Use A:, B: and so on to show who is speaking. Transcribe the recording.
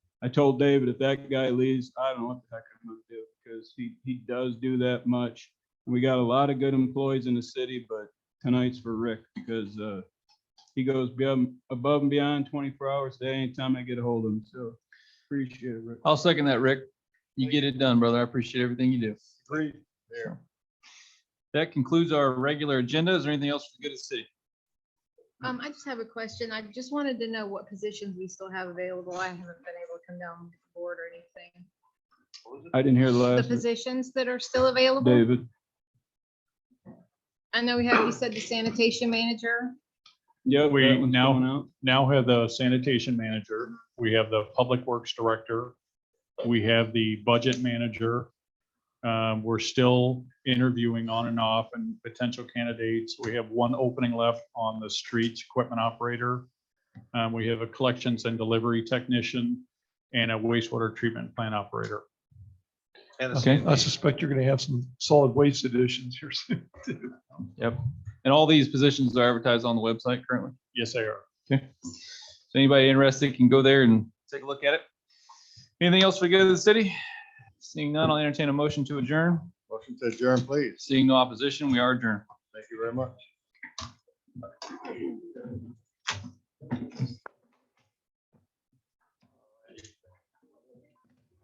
A: I told David, if that guy leaves, I don't know what the heck I'm gonna do, because he, he does do that much. We got a lot of good employees in the city, but tonight's for Rick, because, uh, he goes beyond, above and beyond twenty-four hours a day, anytime I get a hold of him, so appreciate it, Rick.
B: I'll second that, Rick. You get it done, brother. I appreciate everything you do.
A: Great.
B: Sure. That concludes our regular agenda. Is there anything else for the good of the city?
C: Um, I just have a question. I just wanted to know what positions we still have available. I haven't been able to come down with the board or anything.
A: I didn't hear the
C: The
A: last, one.
C: positions that are still available.
A: David.
C: I know we have, you said the sanitation manager.
A: Yeah,
D: We now- now have the sanitation manager, we have the public works director, we have the budget manager. Um, we're still interviewing on and off and potential candidates. We have one opening left on the streets equipment operator. Um, we have a collections and delivery technician and a wastewater treatment plant operator.
B: Okay.
E: I suspect you're gonna have some solid waste additions here soon.
B: And all these positions are advertised on the website currently.
D: Yes, they are.
B: So anybody interested can go there and take a look at it. Anything else for the good of the city? Seeing none, I'll entertain a motion to adjourn.
F: Motion to adjourn, please.
B: Seeing no opposition, we are adjourned.
F: Thank you very much.